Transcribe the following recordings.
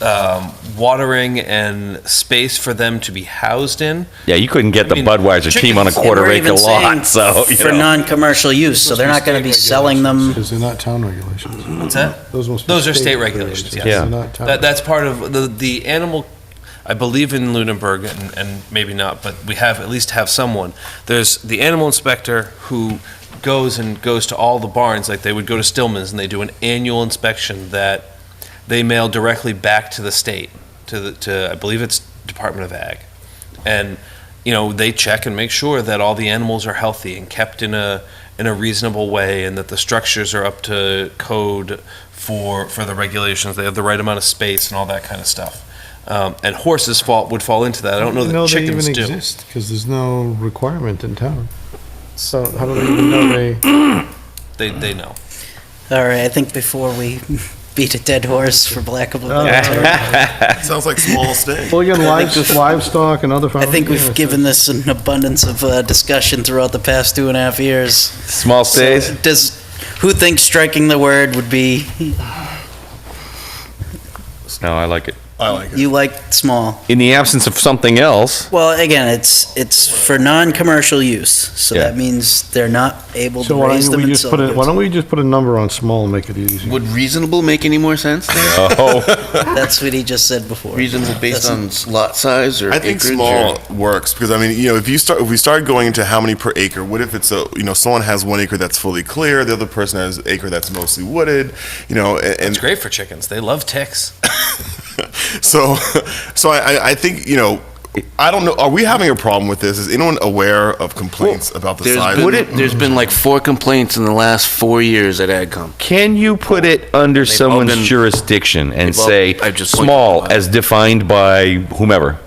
um, watering and space for them to be housed in. Yeah, you couldn't get the mean, Budweiser team on a chickens- quarter we're acre even saying lot, so, you For know. non-commercial use, so they're not going to be selling them. Because they're not town regulations. What's that? Those must be Those are state state regulations, regulations. yes. Yeah. They're not town. That, that's part of the, the animal, I believe in Lunenburg, and, and maybe not, but we have, at least have someone. There's the animal inspector who goes and goes to all the barns, like they would go to Stillman's, and they do an annual inspection that they mail directly back to the state, to the, to, I believe it's Department of Ag. And, you know, they check and make sure that all the animals are healthy and kept in a, in a reasonable way, and that the structures are up to code for for the regulations. They have the right amount of space and all that kind of stuff. Um, and horses fall would fall into that. I don't know that How do they chickens even do. exist? Because there's no requirement in town. So how do they even know they, They they know. All right, I think before we beat a dead horse, for lack Oh, of a better term, Sounds like small steak. well, you got I think we've- lives- livestock and other. I think we've given this an abundance of uh, discussion throughout the past two and a half years. Small stays, Does, who thinks striking the word would be, no, I like it. I like it. you like small? In the absence of something else, Well, again, it's, it's for non-commercial use, so Yeah. that means they're not able So to why raise don't them we and just sell put it, why them. don't we just put a number on small and make it easy? Would reasonable make any more sense? oh, That's what he just said before. Reasonable based That's- on lot size or I think acreage small or- works because I mean, you know, if you start if we start going into how many per acre, what if it's a you know someone has one acre that's fully clear, the other person has an acre that's mostly wooded, you know, and, and It's great for chickens. They love ticks. so so I, I- I think you know. I don't know. Are we having a problem with this? Is anyone aware of complaints about the There's size? been- There's been like four complaints in the last four years at AgCom. can you put it under all someone's been- jurisdiction and they've all- say, I've just pointed small them out. as defined by whomever?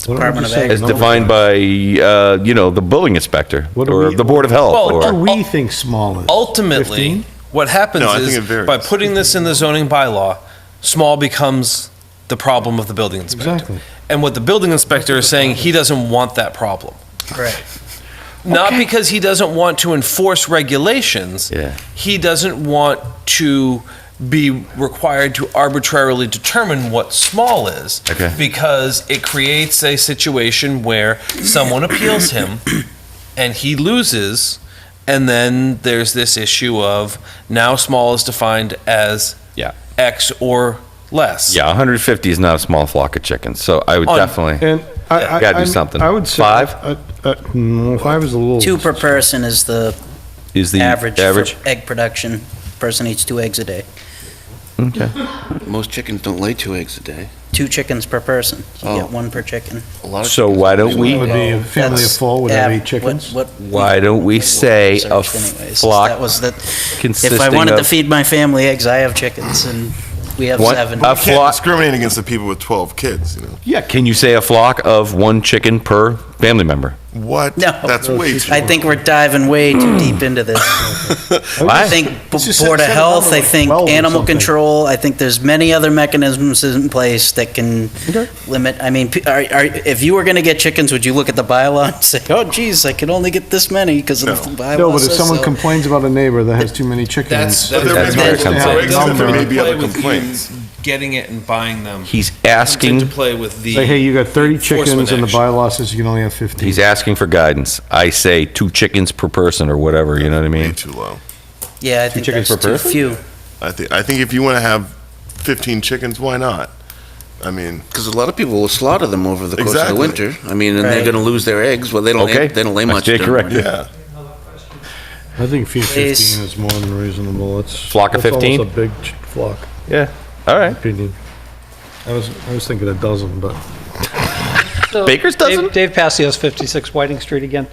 Department of Ag. As defined by, uh, you know, the building inspector What do or we- the Board of Health Well, What do or, we think small is? Ultimately, 15? what happens No, I think it is varies. by putting this in the zoning bylaw, small becomes the problem of the building inspector. Exactly. And what the building inspector is saying, he doesn't want that problem. Right. Not because he doesn't want to enforce regulations. Yeah. He doesn't want to be required to arbitrarily determine what small is. Okay. Because it creates a situation where someone appeals him and he loses. And then there's this issue of now small is defined as Yeah. X or less. yeah, 150 is not a small flock of chickens, so I would On- definitely, And I, I. Gotta do I'm- something. I would say. Five? uh, uh, mm, Five is a little. Two per person is the is the average average? for egg production. Person eats two eggs a day. Okay. Most chickens don't lay two eggs a day. Two chickens per person. So you Oh. get one per chicken. A lot of So chickens why don't don't lay we- Would be a family of That's four would have av- eight chickens. what- what Why don't we say a searched anyways, is flock That was that. If I consisting wanted to of- feed my family eggs, I have chickens and we have What? seven. A You can't flock, discriminate against the people with twelve kids. You know yeah, can you say a flock of one chicken per family member? what? No. that's way too. I think we're diving way too deep into this. I Why? think Let's b- just Board of set- set it Health, up I like think 12 or animal something. control, I think there's many other mechanisms in place that can limit, I mean, p- are, are, if you were gonna get chickens, would you look at the bylaw and say, oh geez, I can only get this many because of the bylaw? No, but if says someone so." complains about a neighbor that has too many That's, chickens. that's, there may that's, be that's, other complaints. There may be other Play with complaints. you Getting it and buying them. He's comes into asking, play with the. Like, hey, you got 30 enforcement chickens and the action. bylaw says you can only have 15. he's asking for guidance. I say two chickens per person or whatever, you know what I Way mean? too low. Yeah, I think chickens that's per too person? few. I think. I think if you want to have fifteen chickens, why not? I mean, Because a lot of people will slaughter them over the course of Exactly. the winter. I mean, and Right. they're going to lose their eggs. Well, they don't. Okay. They don't lay That's much. Jake during correct. winter. yeah. I think fee- 15 Please. is more than reasonable. It's. Flock of that's almost 15? a big ch- flock, Yeah, all in right. my opinion. I was, I was thinking a dozen, but. So, Baker's Dave- dozen? Dave Passios, 56 Whiting Street again.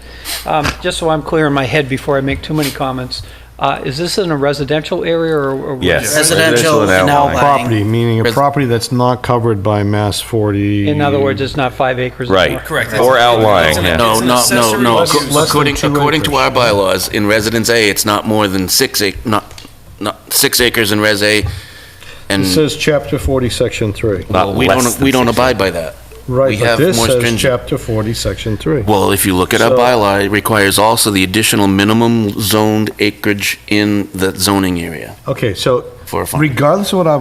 Um, Just so I'm clear in my head before I make too many comments, uh, is this in a residential area or? or- Yes. Residential and outlying. Property, meaning a Res- property that's not covered by Mass 40. In other words, it's not five acres? or Right. more? Correct. Or outlying, yeah. No, It's an no, no, accessory no. use. Acco- Less than According, two according to acres. our bylaws, in Residence A, it's not more than six ac, not, not, six acres in Res A, and, It says Chapter 40, Section 3. well, we Not less don't, than we don't six abide by that. Right, but have this more says stringent- Chapter 40, Section 3. Well, if you look at our So- bylaw, it requires also the additional minimum zoned acreage in the zoning area Okay, so for a farm. regardless of what our